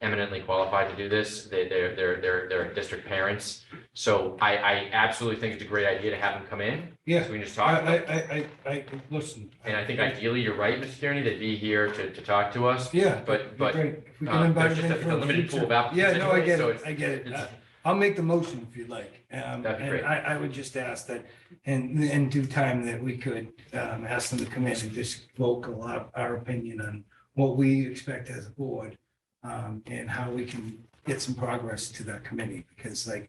eminently qualified to do this. They, they're, they're, they're, they're district parents. So I, I absolutely think it's a great idea to have them come in. Yeah, So we can just I, talk. I, about it. I, I, I, listen. And I think ideally, you're right, Mr. Tierney, they'd be here to, to talk to us. Yeah. But, it'd be but great if we can uh, invite there's them just a- for it's a the limited pool of future. applicants Yeah, no, I anyway, get so it, it's- I get it. it's- I- I'll make the motion if you'd like. That'd Um, be and great. I, I would just ask that, and in due time that we could, um, ask them to come in and just vocal our, our opinion on what we expect as a board, um, and how we can get some progress to that committee, because like,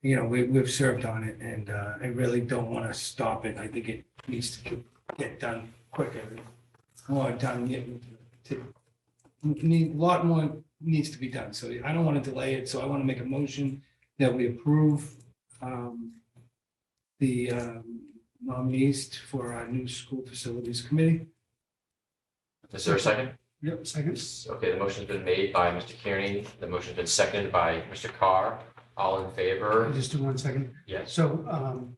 you know, we, we've served on it and, uh, I really don't want to stop it. I think it needs to get done quicker. More done, get, to, need, a lot more needs to be done, so I don't want to delay it, so I want to make a motion that we approve um, the um, nominees for our new school facilities committee. Is there a second? Yep, second. Okay, the motion's been made by Mr. Kearney. The motion's been seconded by Mr. Carr. All in favor? Just do one second. Yes. So um,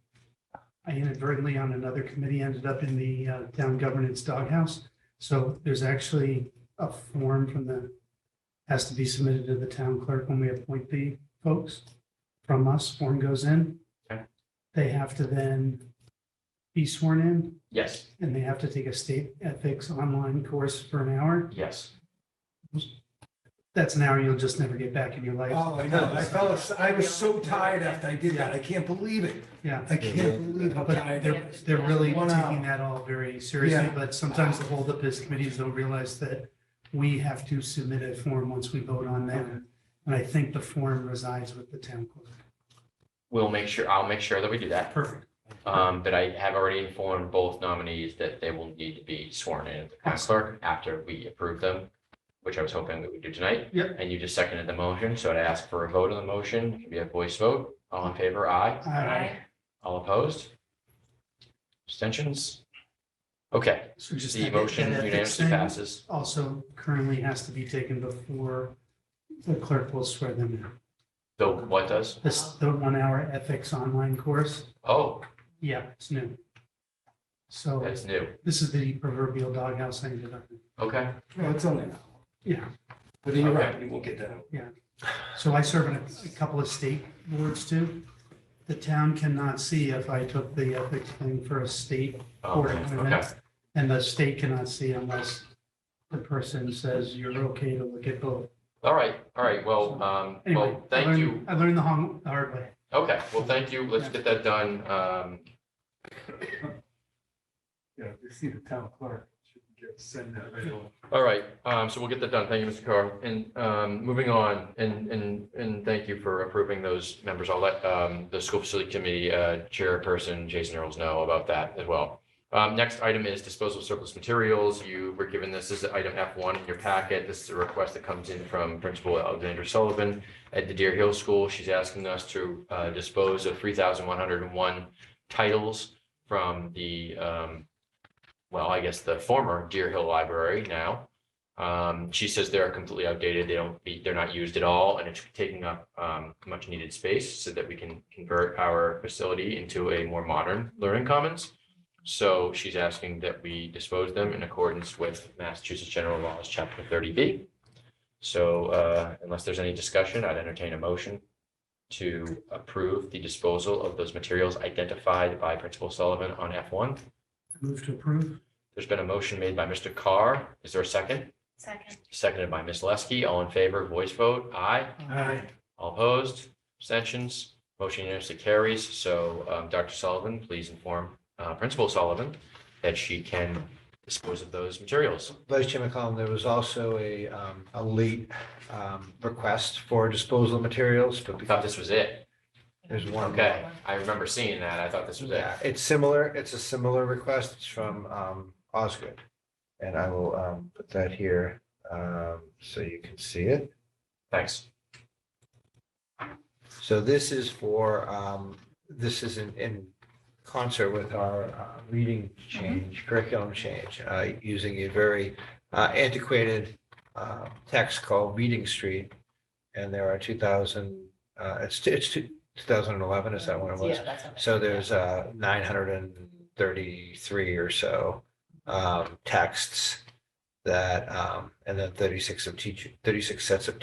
I inadvertently on another committee ended up in the uh, town governance doghouse. So there's actually a form from the, has to be submitted to the town clerk when we appoint the folks from us, form goes in. Okay. They have to then be sworn in Yes, and they have to take a state ethics online course for an hour. yes. That's an hour you'll just never get back in your life. Oh, I know, I fell, as- I was so tired after I did that, I can't believe it, Yeah. I can't believe how But tired I they're, was. they're really One taking hour. that all very seriously, Yeah. but sometimes the holdup is committees don't realize that we have to submit a form once we vote on them. And I think the form resides with the town clerk. We'll make sure, I'll make sure that we do that. Perfect. Um, but I have already informed both nominees that they will need to be sworn in at the town clerk after we approve them, which I was hoping we would do tonight. Yep. And you just seconded the motion, so I'd ask for a vote on the motion. It can be a voice vote. All in favor, aye. Uh, All opposed? Abstentions? Okay, So just the that- motion that ethics unanimously thing passes. Also currently has to be taken before the clerk will swear them in. The what does? This, the one hour ethics online course, Oh, yeah, it's new. So that's new. this is the proverbial doghouse I ended up in. Okay. Well, it's only, an hour, Yeah. but you're right, we won't get that. out. So I serve on a- a couple of state boards too. The town cannot see if I took the ethics thing for a state Oh, board Okay. appointment. And the state cannot see unless the person says you're okay to look at both. All right, all right. Well, um, Anyway, well, I thank learned- you. I learned the hon- the hard way. Okay, well, thank you. Let's get that done. Um, Yeah, you see the town clerk, she can get- send that right away. all right, um, so we'll get that done. Thank you, Mr. Carr. And, um, moving on, and, and, and thank you for approving those members. I'll let, um, the school facility committee, uh, chairperson, Jason Earls know about that as well. Um, next item is disposal of surplus materials. You were given this, this is item F one in your packet. This is a request that comes in from Principal Alexandra Sullivan at the Deer Hill School. She's asking us to uh, dispose of three thousand one hundred and one titles from the, um, well, I guess the former Deer Hill Library now. Um, She says they're completely outdated. They don't, be- they're not used at all, and it's taking up um, much needed space so that we can convert our facility into a more modern learning commons. So she's asking that we dispose them in accordance with Massachusetts General Laws, Chapter thirty B. So uh, unless there's any discussion, I'd entertain a motion to approve the disposal of those materials identified by Principal Sullivan on F1. Move to approve. There's been a motion made by Mr. Carr. Is there a second? Second. Seconded by Ms. Leskey. All in favor, voice vote. Aye. Aye. All opposed? Abstentions? Motion unanimously carries. So um, Dr. Sullivan, please inform uh, Principal Sullivan that she can dispose of those materials. Vice Chair McCollum, there was also a, um, a late, um, request for disposal of materials, but I thought because this was it. there's one. Okay, I remember seeing that. I thought this was it. Yeah, it's similar, it's a similar request, it's from, um, Osgood. And I will, um, put that here, um, so you can see it. Thanks. So this is for, um, this is in, in concert with our uh, reading change, curriculum change, uh, using a very uh, antiquated uh, text called Reading Street. And there are two thousand, uh, it's, it's two thousand and eleven, is that what it was? Yeah, that's what I- So there's uh nine hundred and thirty-three or so um texts that um and then thirty-six of teach, thirty-six sets of